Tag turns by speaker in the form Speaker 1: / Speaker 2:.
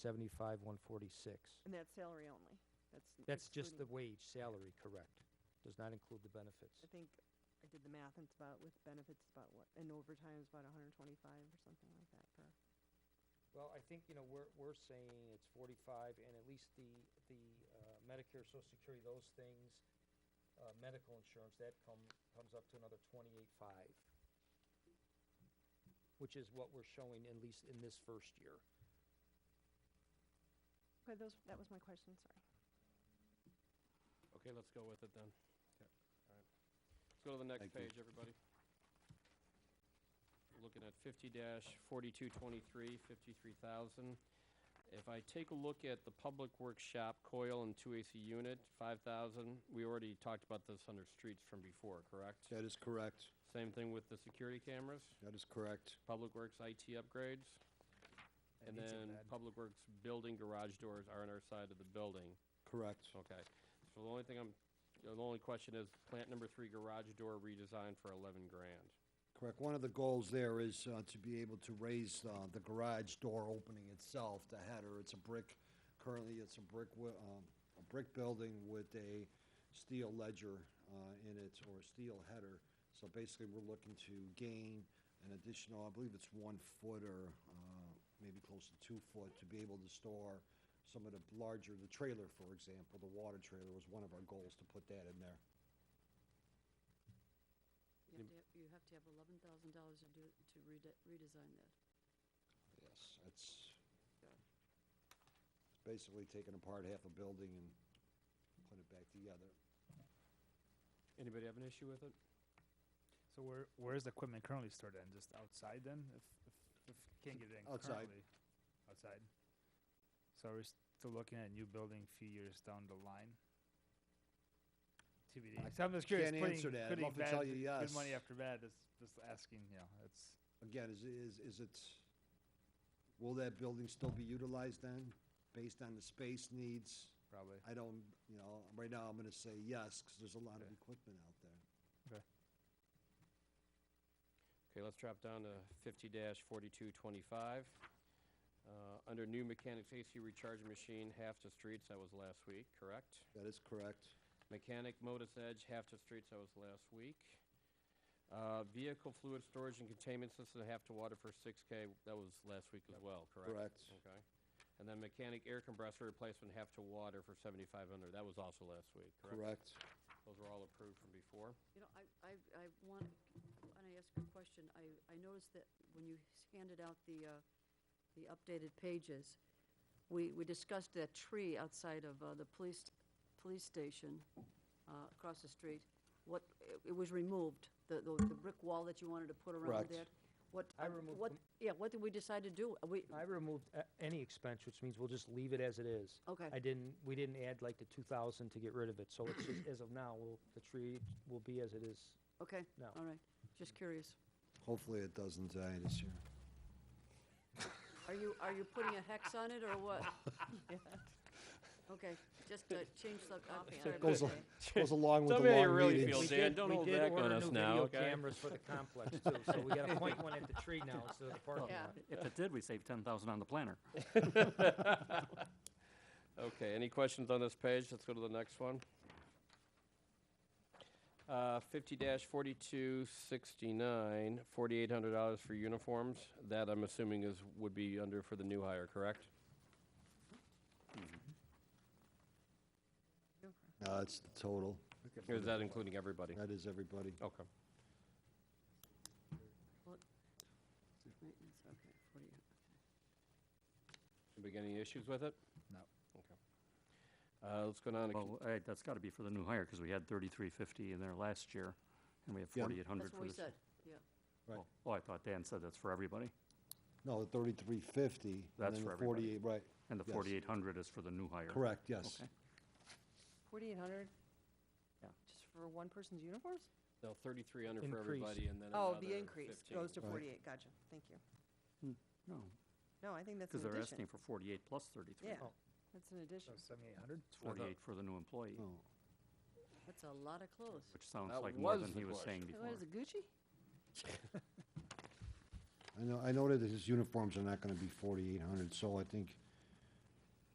Speaker 1: seventy-five, one forty-six.
Speaker 2: And that's salary only? That's. n-
Speaker 1: That's just the
Speaker 2: excluding-
Speaker 1: wage, salary, correct. Does not include the benefits.
Speaker 2: I think I did the math and it's about, with benefits, it's about what, and overtime is about hundred and twenty-five or something like that per.
Speaker 1: Well, I think, you know, we're, we're saying it's forty-five, and at least the, the uh, Medicare, Social Security, those things, uh, medical insurance, that come, comes up to another twenty-eight-five, which is what we're showing, at least in this first year.
Speaker 2: Okay, those, that was my question, sorry.
Speaker 3: Okay, let's go with it then.
Speaker 4: Okay.
Speaker 3: All right. Let's go to the next
Speaker 4: Thank you.
Speaker 3: page, everybody. We're Looking at fifty forty-two twenty-three, fifty-three thousand. If I take a look at the public workshop coil and two AC unit, five thousand, we already talked about this under streets from before, correct?
Speaker 4: That is correct.
Speaker 3: Same thing with the security cameras,
Speaker 4: That is correct.
Speaker 3: public works IT upgrades, and
Speaker 1: needs some
Speaker 3: then
Speaker 1: add.
Speaker 3: public works building garage doors are on our side of the building.
Speaker 4: Correct.
Speaker 3: Okay, so the only thing I'm, the only question is plant number three garage door redesign for eleven grand.
Speaker 4: Correct. One of the goals there is uh, to be able to raise uh, the garage door opening itself, the header. It's a brick, currently it's a brick, wi- um, a brick building with a steel ledger uh, in it, or a steel header. So basically, we're looking to gain an additional, I believe it's one foot or uh, maybe close to two foot, to be able to store some of the larger, the trailer, for example, the water trailer was one of our goals to put that in there.
Speaker 5: You have to, have- you have to have eleven thousand dollars to do, to rede- redesign that.
Speaker 4: Yes, it's it's basically taking apart half a building and putting it back together.
Speaker 3: Anybody have an issue with it?
Speaker 6: So where where is the equipment currently stored then? Just outside then? If if, if you can't get it in
Speaker 4: Outside.
Speaker 6: currently, outside. So we're still looking at a new building a few years down the line. TBD.
Speaker 4: I
Speaker 6: so I'm just curious.
Speaker 4: can't
Speaker 6: putting,
Speaker 4: answer that. I'd
Speaker 6: putting
Speaker 4: love to
Speaker 6: bad-
Speaker 4: tell you
Speaker 6: Good money
Speaker 4: yes.
Speaker 6: after bad. Is just asking. You know, it's
Speaker 4: Again, is, is, is it, will that building still be utilized then, based on the space needs?
Speaker 6: probably.
Speaker 4: I don't, you know, right now I'm gonna say yes, because there's a lot of
Speaker 6: Okay.
Speaker 4: equipment out there.
Speaker 6: okay.
Speaker 3: Okay, let's drop down to fifty forty-two twenty-five. Uh, under new mechanics AC recharging machine, half to streets, that was last week, correct?
Speaker 4: That is correct.
Speaker 3: Mechanic modus edge, half to streets, that was last week. Uh, vehicle fluid storage and containment system, half to water for six K, that was last week as well, correct?
Speaker 4: Correct.
Speaker 3: Okay. And then mechanic air compressor replacement half to water for seventy-five hundred, that was also last week, correct?
Speaker 4: Correct.
Speaker 3: Those were all approved from before.
Speaker 5: You know, I, I, I want, when I ask you a question, I, I noticed that when you handed out the, uh, the updated pages, we, we discussed that tree outside of, uh, the police, police station, uh, across the street. What, it, it was removed, the, the, the brick wall that you wanted to put
Speaker 4: Correct.
Speaker 5: around that. What,
Speaker 1: I removed
Speaker 5: what,
Speaker 1: them.
Speaker 5: yeah, what did we decide to do? We,
Speaker 1: I removed a- any expense, which means we'll just leave it as it is.
Speaker 5: Okay.
Speaker 1: I didn't, we didn't add like the two thousand to get rid of it, so it's just, as of now, we'll, the tree will be as it is.
Speaker 5: okay,
Speaker 1: No.
Speaker 5: all right, just curious.
Speaker 4: Hopefully it doesn't die this year.
Speaker 5: Are you, are you putting a hex on it, or what? Okay, just uh, change the copy. on it.
Speaker 4: Goes, al- goes along with
Speaker 3: Tell
Speaker 4: the
Speaker 3: me how you
Speaker 4: long
Speaker 3: really
Speaker 4: meetings.
Speaker 3: feel,
Speaker 1: We
Speaker 3: Dan.
Speaker 1: did-
Speaker 3: don't
Speaker 1: we
Speaker 3: hold
Speaker 1: did
Speaker 3: back on
Speaker 1: order
Speaker 3: us
Speaker 1: new
Speaker 3: now,
Speaker 1: video
Speaker 3: okay?
Speaker 1: Cameras for the complex too, so we gotta point one at the tree now instead of the parking
Speaker 5: Yeah.
Speaker 1: lot.
Speaker 7: If it did, we saved ten thousand on the planner.
Speaker 3: Okay, any questions on this page? Let's go to the next one. Uh, fifty forty-two sixty-nine, forty-eight hundred dollars for uniforms. That I'm assuming is, would be under for the new hire, correct?
Speaker 4: No, it's the total.
Speaker 3: Or is that including everybody?
Speaker 4: That is everybody.
Speaker 3: Okay.
Speaker 5: Maintenance, okay, 48.
Speaker 3: Anybody got any issues with it?
Speaker 6: No.
Speaker 3: Okay. Uh, let's go down to.
Speaker 7: Well, I- that's gotta be for the new hire, because we had thirty-three fifty in there last year, and we have
Speaker 4: Yeah.
Speaker 7: forty-eight hundred
Speaker 5: That's
Speaker 7: for this.
Speaker 5: what we said, yeah.
Speaker 4: Right.
Speaker 7: Oh, Oh, I thought Dan said that's for everybody,
Speaker 4: No, the thirty-three fifty.
Speaker 7: That's for everybody.
Speaker 4: Right.
Speaker 7: and the
Speaker 4: Yes.
Speaker 7: forty-eight hundred is for the new hire.
Speaker 4: Correct, yes.
Speaker 7: Okay.
Speaker 2: Forty-eight hundred?
Speaker 7: Yeah.
Speaker 2: Just for one person's uniforms?
Speaker 3: No, thirty-three under for
Speaker 1: Increase.
Speaker 3: everybody, and then
Speaker 2: Oh, the
Speaker 3: another
Speaker 2: increase
Speaker 3: 15.
Speaker 2: goes to
Speaker 4: Right.
Speaker 2: forty-eight, gotcha, thank you.
Speaker 1: Hmm,
Speaker 7: No,
Speaker 2: No, I think that's
Speaker 7: because
Speaker 2: an
Speaker 7: they're asking for
Speaker 2: addition.
Speaker 7: forty-eight plus thirty-three.
Speaker 2: Yeah,
Speaker 1: Oh.
Speaker 2: that's an addition.
Speaker 6: So seventy-eight hundred.
Speaker 7: It's forty-eight for the new employee,
Speaker 4: Oh,
Speaker 5: That's a lot of clothes.
Speaker 7: which sounds
Speaker 3: That
Speaker 7: like more
Speaker 3: was
Speaker 7: than
Speaker 3: the
Speaker 7: he was saying
Speaker 2: What
Speaker 7: before.
Speaker 2: is it, Gucci?
Speaker 4: I know, I know that his uniforms are not gonna be forty-eight hundred, so I think